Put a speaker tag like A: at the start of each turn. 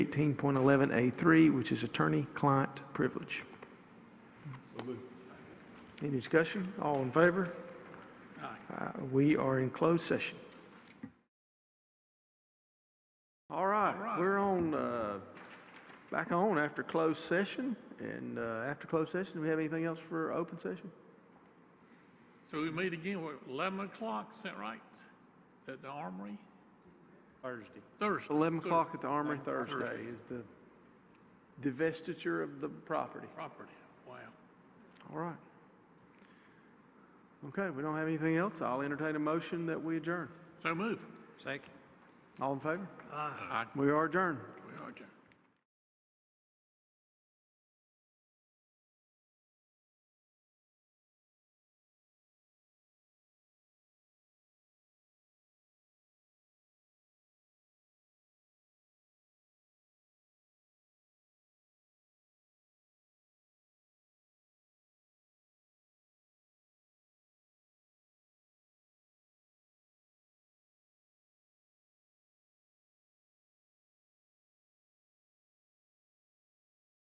A: 18.11A3, which is attorney-client privilege. Any discussion? All in favor? Uh, We are in closed session. All right, we're on, uh, back on after closed session. And uh, after closed session, do we have anything else for open session?
B: So we meet again, what, 11 o'clock, is that right? At the Armory?
C: Thursday.
B: Thursday.
A: 11
B: Thur-
A: o'clock at the Armory Thursday
B: Thursday.
A: is the divestiture of the property.
B: Property, wow.
A: All right. Okay, we don't have anything else. I'll entertain a motion that we adjourn.
B: So move.
C: Second.
A: All in favor?
B: Aye.
A: We are adjourned.